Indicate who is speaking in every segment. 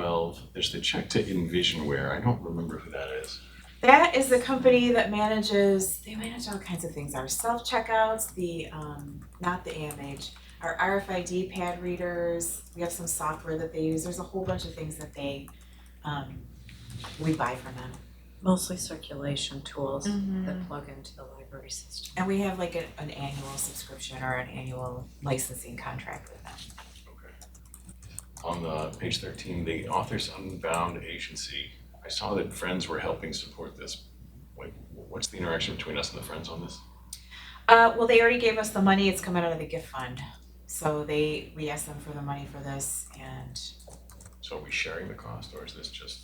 Speaker 1: twelve, there's the check to Envisionware. I don't remember who that is.
Speaker 2: That is the company that manages, they manage all kinds of things, our self-checkouts, the, um, not the AMH, our RFID pad readers, we have some software that they use, there's a whole bunch of things that they, um, we buy from them.
Speaker 3: Mostly circulation tools that plug into the library system.
Speaker 2: And we have like a- an annual subscription or an annual licensing contract with them.
Speaker 1: On the page thirteen, the Authors Unbound Agency, I saw that Friends were helping support this. Like, what's the interaction between us and the Friends on this?
Speaker 2: Uh, well, they already gave us the money, it's coming out of the gift fund, so they, we asked them for the money for this and
Speaker 1: So are we sharing the cost or is this just,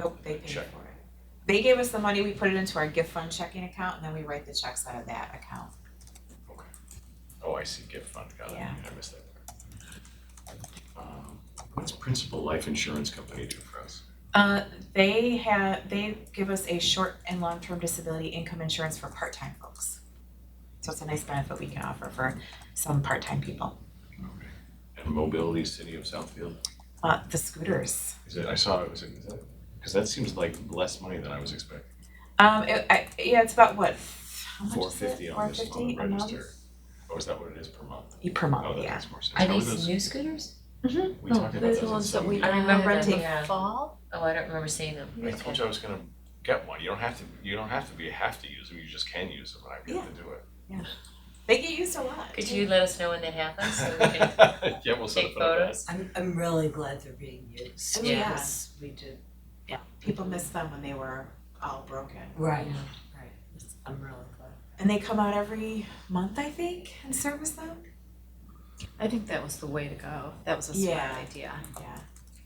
Speaker 2: Nope, they paid for
Speaker 1: Check.
Speaker 2: it. They gave us the money, we put it into our gift fund checking account, and then we write the checks out of that account.
Speaker 1: oh, I see gift fund, got it,
Speaker 2: Yeah.
Speaker 1: I missed that part. Um, What's Principal Life Insurance Company do for us?
Speaker 2: Uh, they have, they give us a short and long-term disability income insurance for part-time folks. So it's a nice benefit we can offer for some part-time people.
Speaker 1: Okay. And Mobility City of Southfield?
Speaker 2: Uh, the scooters.
Speaker 1: Is it, I saw it, was it, is that, because that seems like less money than I was expecting.
Speaker 2: Um, it, I, yeah, it's about what, how much is it?
Speaker 1: Four fifty on this on the
Speaker 2: $4.50 a month?
Speaker 1: register. Oh, is that what it is per month?
Speaker 2: Yeah, Per
Speaker 1: Oh,
Speaker 2: month,
Speaker 1: that
Speaker 2: yeah.
Speaker 1: makes more sense.
Speaker 4: Are
Speaker 1: How
Speaker 4: these
Speaker 1: those-
Speaker 4: new scooters?
Speaker 1: We
Speaker 3: Mm-hmm. No,
Speaker 1: talked about those
Speaker 3: those are the
Speaker 1: in
Speaker 3: ones that
Speaker 1: some
Speaker 3: we-
Speaker 1: meeting.
Speaker 4: I remember
Speaker 3: Uh,
Speaker 4: renting
Speaker 3: yeah.
Speaker 4: a fall. Oh, I don't remember seeing them.
Speaker 1: I told you I was gonna get one. You don't have to, you don't have to be, have to use them, you just can use them, and I
Speaker 2: Yeah.
Speaker 1: get to do it.
Speaker 2: They get used a lot.
Speaker 4: Could
Speaker 2: too.
Speaker 4: you let us know when that happens so we can
Speaker 1: Yeah, we'll set
Speaker 4: take
Speaker 1: up another.
Speaker 4: photos?
Speaker 5: I'm I'm really glad they're being used.
Speaker 2: Oh, yeah.
Speaker 5: because We did,
Speaker 2: People miss them when they were all broken.
Speaker 5: right, right, It's- I'm really glad.
Speaker 2: And they come out every month, I think, and service them?
Speaker 3: I think that was the way to go. That was a
Speaker 2: Yeah.
Speaker 3: smart idea.
Speaker 2: Yeah,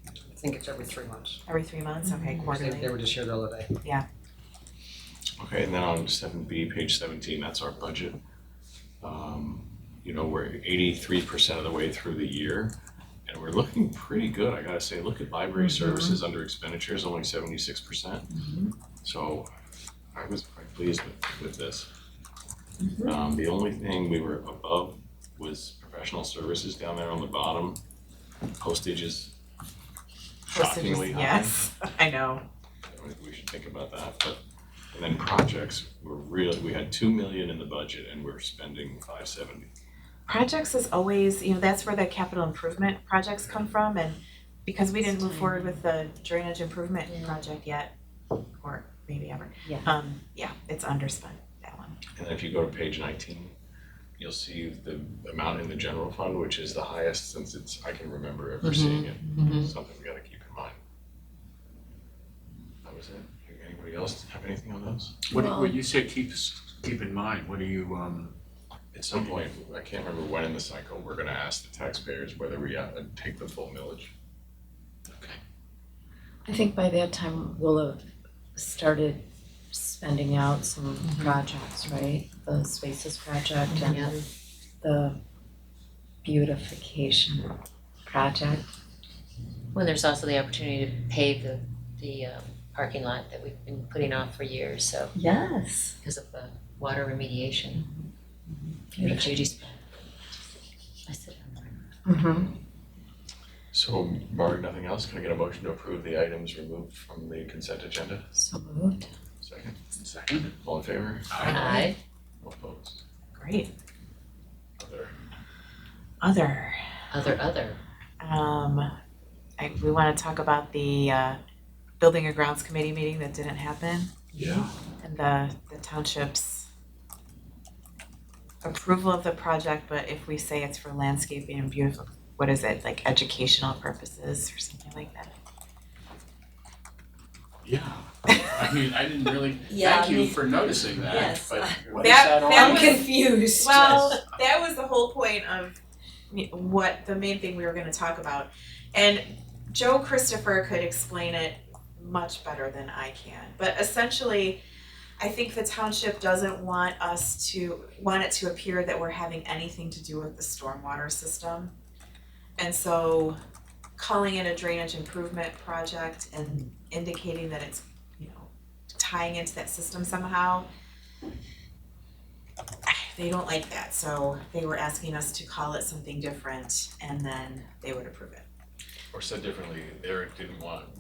Speaker 6: I think it's every three months.
Speaker 2: every three months, okay,
Speaker 6: They, they
Speaker 2: quarterly.
Speaker 6: were just here the other day.
Speaker 1: Okay, and then on seven B, page seventeen, that's our budget. Um, you know, we're eighty-three percent of the way through the year, and we're looking pretty good, I gotta say, look at library services under expenditures, only seventy-six percent. So I was quite pleased with, with this. Um, the only thing we were above was professional services down there on the bottom, postage is shockingly high.
Speaker 2: Yes, I know.
Speaker 1: I think we should think about that, but, and then projects, we're really, we had two million in the budget and we're spending five seventy.
Speaker 2: Projects is always, you know, that's where the capital improvement projects come from and because we didn't move forward with the drainage improvement
Speaker 4: Yeah.
Speaker 2: project yet, or maybe ever.
Speaker 3: Yeah.
Speaker 2: Um, yeah, it's underspent, that one.
Speaker 1: And then if you go to page nineteen, you'll see the amount in the general fund, which is the highest since it's, I can remember ever seeing it. Something we gotta keep in mind. That was it. Anybody else have anything on those?
Speaker 7: What,
Speaker 3: Well-
Speaker 7: what you say keep, keep in mind, what do you, um,
Speaker 1: At some point, I can't remember when in the cycle, we're gonna ask the taxpayers whether we uh, take the full millage.
Speaker 3: I think by that time we'll have started spending out some
Speaker 5: Mm-hmm.
Speaker 3: projects, right? The spaces project and the beautification project.
Speaker 4: When there's also the opportunity to pave the, the um, parking lot that we've been putting off for years, so
Speaker 3: Yes.
Speaker 4: because of the water remediation. Beautiful. Judy's. I said,
Speaker 3: Mm-hmm.
Speaker 1: So, barring nothing else, can I get a motion to approve the items removed from the consent agenda?
Speaker 3: So moved.
Speaker 1: Second,
Speaker 7: second?
Speaker 1: all in favor?
Speaker 4: aye.
Speaker 1: All opposed?
Speaker 2: Great.
Speaker 1: Other.
Speaker 2: Other,
Speaker 4: Other, other.
Speaker 2: um, I, we wanna talk about the uh Building and Grounds Committee meeting that didn't happen.
Speaker 7: Yeah.
Speaker 2: and the the township's approval of the project, but if we say it's for landscaping and beautiful, what is it, like educational purposes or something like that?
Speaker 7: Yeah. I mean, I didn't really, thank you for noticing that,
Speaker 5: Yes.
Speaker 7: but what is
Speaker 2: That-
Speaker 7: that all?
Speaker 2: that
Speaker 5: I'm
Speaker 2: was-
Speaker 5: confused.
Speaker 2: Well, that was the whole point of me- what the main thing we were gonna talk about. And Joe Christopher could explain it much better than I can, but essentially, I think the township doesn't want us to, want it to appear that we're having anything to do with the stormwater system. And so calling it a drainage improvement project and indicating that it's, you know, tying into that system somehow they don't like that, so they were asking us to call it something different and then they would approve it.
Speaker 1: Or said differently, Eric didn't want